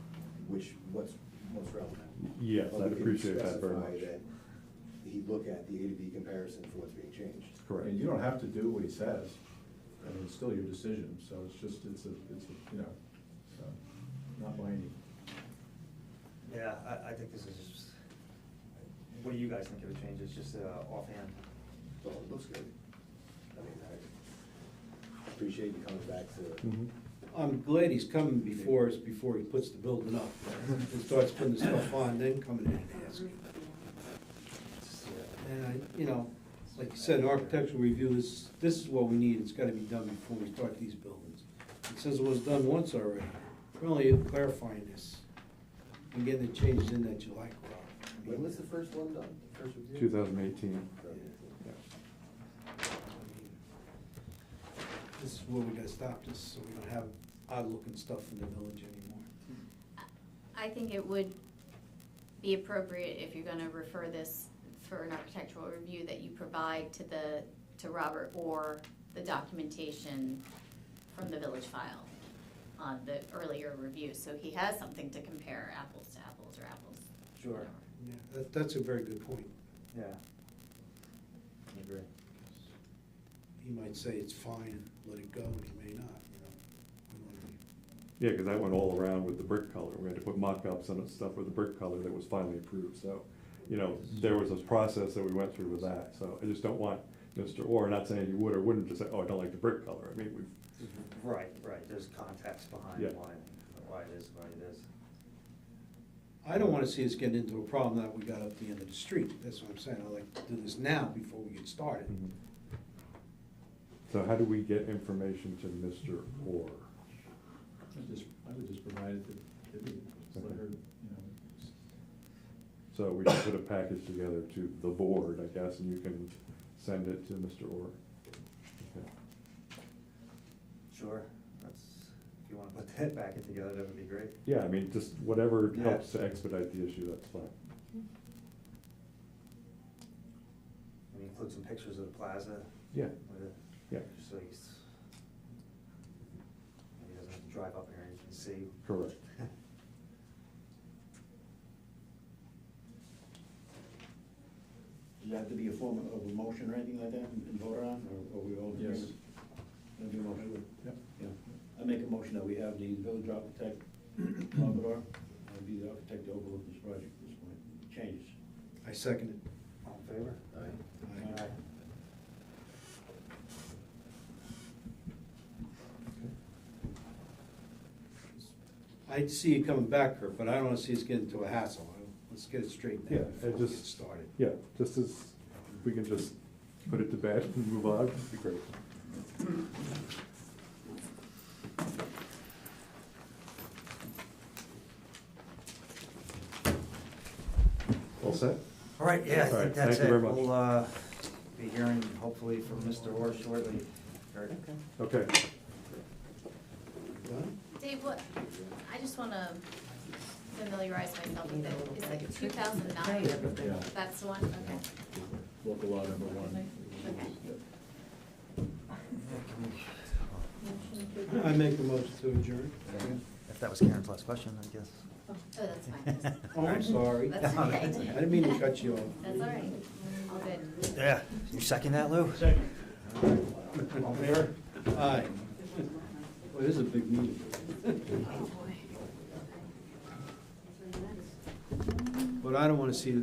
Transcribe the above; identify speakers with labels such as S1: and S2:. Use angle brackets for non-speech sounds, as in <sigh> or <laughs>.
S1: which, what's most relevant.
S2: Yes,
S1: But we
S2: I'd
S1: can
S2: appreciate that very
S1: specify
S2: much.
S1: that He look at the A to B comparison for what's being changed.
S2: Correct.
S3: And you don't have to do what he says, I mean, it's still your decision, so it's just, it's a, it's a, you know, so, not binding.
S4: Yeah, I, I think this is just, what do you guys think of the changes, just uh, offhand?
S1: So it looks good. I mean, I appreciate you coming back to,
S2: Mhm.
S5: I'm glad he's coming before, us before he puts the building up and starts putting the stuff on, then coming in and asking.
S4: It's, yeah.
S5: And I, you know, like you said, architectural review is, this is what we need, it's gotta be done before we start these buildings. It says it was done once already, we're only clarifying this and getting the changes in that you like, Rob.
S1: when was the first one done? First review?
S2: Two thousand eighteen.
S1: Yeah.
S5: This is where we gotta stop this, so we don't have odd-looking stuff in the village anymore.
S6: I think it would be appropriate if you're gonna refer this for an architectural review that you provide to the, to Robert or the documentation from the village file on the earlier review, so he has something to compare apples to apples or apples.
S4: Sure.
S5: Yeah, that, that's a very good point.
S4: Yeah. I agree.
S5: He might say it's fine, let it go, and he may not, you know. We wanna be-
S2: Yeah, because I went all around with the brick color. We had to put mock-ups and stuff with the brick color that was finally approved, so, you know, there was a process that we went through with that, so I just don't want Mr. Orr, not saying he would or wouldn't, to say, oh, I don't like the brick color. I mean, we've,
S4: Right, right, there's context behind
S2: Yeah.
S4: why, why it is, why it is.
S5: I don't wanna see us getting into a problem that we got up the end of the street, that's what I'm saying, I like to do this now before we get started.
S2: Mm-hmm. so how do we get information to Mr. Orr?
S3: I just, I would just provide it to Vivian, just let her, you know, s-
S2: So we can put a package together to the board, I guess, and you can send it to Mr. Orr. Okay.
S4: Sure, that's, if you wanna put that <laughs> packet together, that would be great.
S2: Yeah, I mean, just whatever
S4: Yeah.
S2: helps to expedite the issue, that's fine.
S4: And include some pictures of the plaza
S2: Yeah,
S4: with it.
S2: yeah,
S4: Just so he's, he doesn't have to drive up here and he can see.
S2: correct.
S7: Does that have to be a form of a motion or anything like that and and voted on, or are we all? in
S3: Yes.
S7: agreement? That'd be a motion.
S3: Yep.
S7: Yeah. I make a motion that we have the village architect, Labrador, uh, be the architect to overlook this project at this point, changes.
S5: I second it.
S4: All in favor?
S5: Aye. I'd see you coming back, Kurt, but I don't wanna see us get into a hassle, I- let's get it straightened
S2: Yeah,
S5: out
S2: it
S5: before we get
S2: just-
S5: started.
S2: Yeah, just as, if we can just put it to bed and move on, it'd be great. All set?
S4: All right, yeah, I
S2: All
S4: think
S2: right,
S4: that's
S2: thank you
S4: it.
S2: very much.
S4: We'll, uh, be hearing hopefully from Mr. Orr shortly. Okay.
S2: Okay,
S5: Done?
S6: Dave, what, I just wanna familiarize myself with it, it's like two thousand nine,
S3: yeah,
S6: that's the one, okay.
S3: local law number one.
S6: Okay.
S3: Yep.
S5: I make the motion to adjourn.
S4: If that was Karen's last question, I guess.
S6: Oh, that's fine.
S5: Oh, I'm sorry.
S6: That's
S4: No,
S6: okay.
S4: that's
S5: <laughs> I didn't mean to cut you off.
S6: That's all right, all good.
S4: Yeah, you second that, Lou?
S5: All fair? Aye. Well, it is a big meeting. But I don't wanna see